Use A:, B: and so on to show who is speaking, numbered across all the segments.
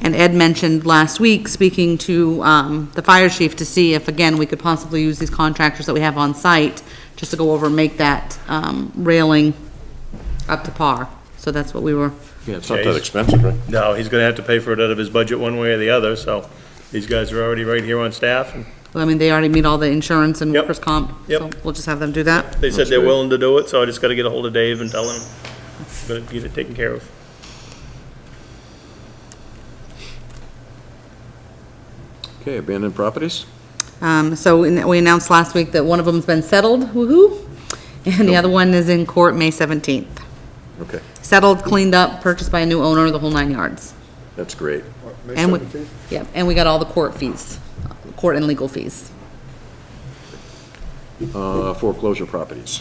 A: And Ed mentioned last week, speaking to um, the fire chief to see if, again, we could possibly use these contractors that we have on site, just to go over and make that um, railing up to par. So that's what we were,
B: Yeah, it's not
C: Okay.
B: that expensive, right?
C: No, he's gonna have to pay for it out of his budget one way or the other, so these guys are already right here on staff, and
A: I mean, they already meet all the insurance and
C: Yep.
A: workers' comp. So
C: Yep.
A: we'll just have them do that.
C: they said
B: That's
C: they're
B: good.
C: willing to do it, so I just gotta get a hold of Dave and tell him, gonna get it taken care of.
B: Okay, abandoned properties?
A: Um, so in- we announced last week that one of them's been settled, woo-hoo, and the other one is in court May 17th.
B: Okay,
A: Settled, cleaned up, purchased by a new owner, the whole nine yards.
B: that's great.
A: And we, yeah, and we got all the court fees, court and legal fees.
B: Uh, Foreclosure properties.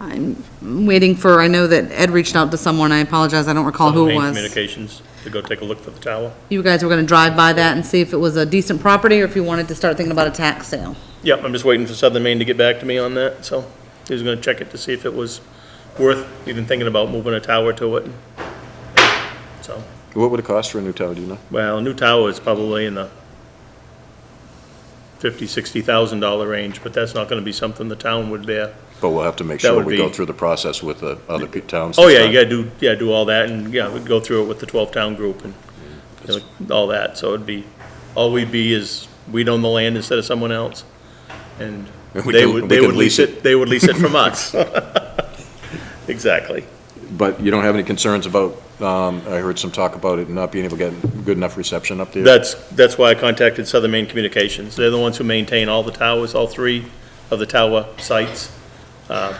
A: I'm waiting for, I know that Ed reached out to someone, I apologize, I don't recall who it
C: Main
A: was.
C: Communications, to go take a look for the tower.
A: You guys were gonna drive by that and see if it was a decent property, or if you wanted to start thinking about a tax sale.
C: Yep, I'm just waiting for Southern Maine to get back to me on that, so he was gonna check it to see if it was worth even thinking about moving a tower to it. So,
B: What would it cost for a new tower, do you know?
C: well, new tower is probably in the fifty, sixty thousand dollar range, but that's not gonna be something the town would bear.
B: But we'll have to make
C: That
B: sure
C: would
B: we go
C: be-
B: through the process with the other pe- towns.
C: Oh, yeah, you gotta do, yeah, do all that, and, yeah, we'd go through it with the twelve-town group and, you know, all that, so it'd be, all we'd be is, we'd own the land instead of someone else, and
B: And we
C: they
B: can-
C: would,
B: we
C: they
B: can
C: would
B: lease
C: lease
B: it.
C: it, they would lease it from us. Exactly.
B: But you don't have any concerns about, um, I heard some talk about it not being able to get good enough reception up there?
C: That's, that's why I contacted Southern Maine Communications. They're the ones who maintain all the towers, all three of the tower sites, uh,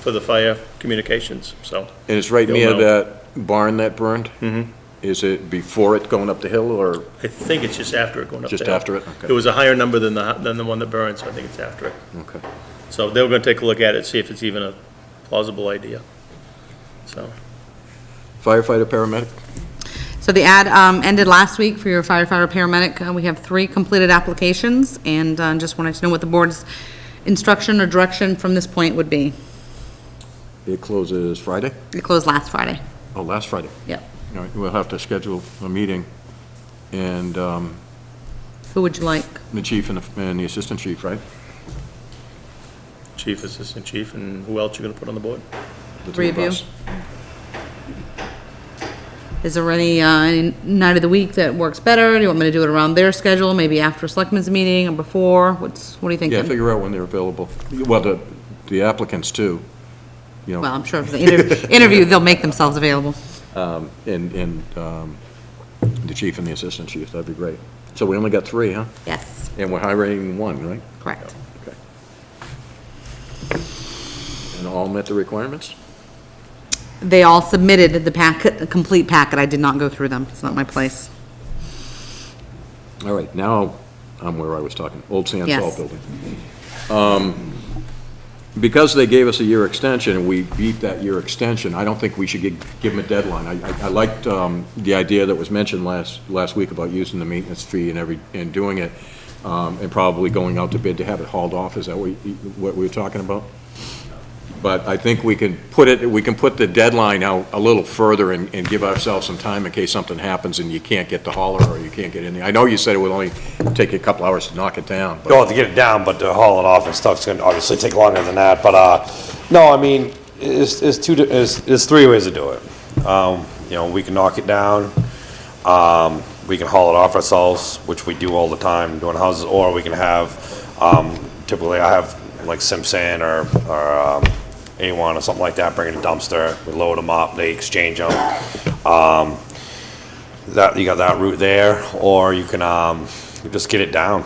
C: for the fire communications, so.
B: And it's right
C: Don't
B: near
C: know.
B: that barn that burned? Mm-hmm. Is it before it going up the hill or
C: I think it's just after it going up there.
B: Just after it? Okay.
C: It was a higher number than the, than the one that burned, so I think it's after it.
B: Okay.
C: So they were gonna take a look at it, see if it's even a plausible idea. So,
B: firefighter, paramedic?
A: So the ad um, ended last week for your firefighter paramedic. Uh, We have three completed applications, and uh, just wanted to know what the board's instruction or direction from this point would be.
B: It closes Friday?
A: It closed last Friday.
B: Oh, last Friday.
A: Yep.
B: All right, we'll have to schedule a meeting, and um,
A: Who would you like?
B: the chief and the and the assistant chief, right?
C: chief, assistant chief, and who else you gonna put on the board?
B: The
A: Three of you.
B: us.
A: Is there any, uh, any night of the week that works better? Do you want me to do it around their schedule, maybe after selectmen's meeting or before? What's, what are you
B: Yeah,
A: thinking?
B: figure out when they're available. Well, the the applicants too, you
A: Well,
B: know,
A: I'm sure if the inter- interview, they'll make themselves available.
B: and, and um, the chief and the assistant chief, that'd be great. So we only got three, huh?
A: Yes,
B: And we're hiring one, right?
A: correct.
B: Okay. And all met the requirements?
A: They all submitted the packet, the complete packet. I did not go through them. It's not my place.
B: All right, now I'm where I was talking, Old Sand Salt
A: Yes.
B: Building. Um, Because they gave us a year extension and we beat that year extension, I don't think we should gi- give them a deadline. I- I I liked um, the idea that was mentioned last, last week about using the maintenance fee and every, and doing it, um, and probably going out to bid to have it hauled off, is that what you- what we were talking about? But I think we can put it, we can put the deadline out a little further and, and give ourselves some time in case something happens and you can't get the hauler or you can't get in there. I know you said it would only take you a couple hours to knock it down, but
D: No, to get it down, but to haul it off and stuff's gonna obviously take longer than that, but, uh, no, I mean, it's, it's two, di- it's, it's three ways to do it. Um, you know, we can knock it down, um, we can haul it off ourselves, which we do all the time doing houses, or we can have, um, typically I have like Simpson or, or, um, A1 or something like that, bring in a dumpster, we load them up, they exchange them. Um, that, you got that route there, or you can, um, just get it down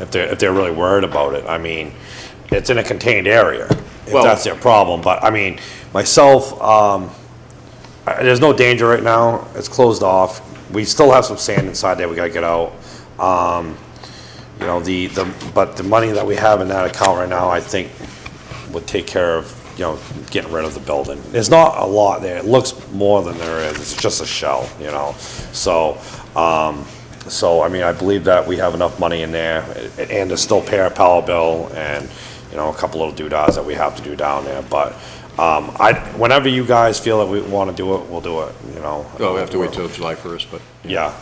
D: if they're, if they're really worried about it. I mean, it's in a contained area, if
B: Well-
D: that's their problem, but I mean, myself, um, uh, There's no danger right now. It's closed off. We still have some sand inside there we gotta get out. Um, you know, the, the, but the money that we have in that account right now, I think would take care of, you know, getting rid of the building. There's not a lot there. It looks more than there is. It's just a shell, you know? So, um, so, I mean, I believe that we have enough money in there a- and there's still pay our power bill and, you know, a couple little doodads that we have to do down there. But, um, I, whenever you guys feel that we wanna do it, we'll do it, you know?
B: we'll have to wait till July 1st, but.
D: Yeah,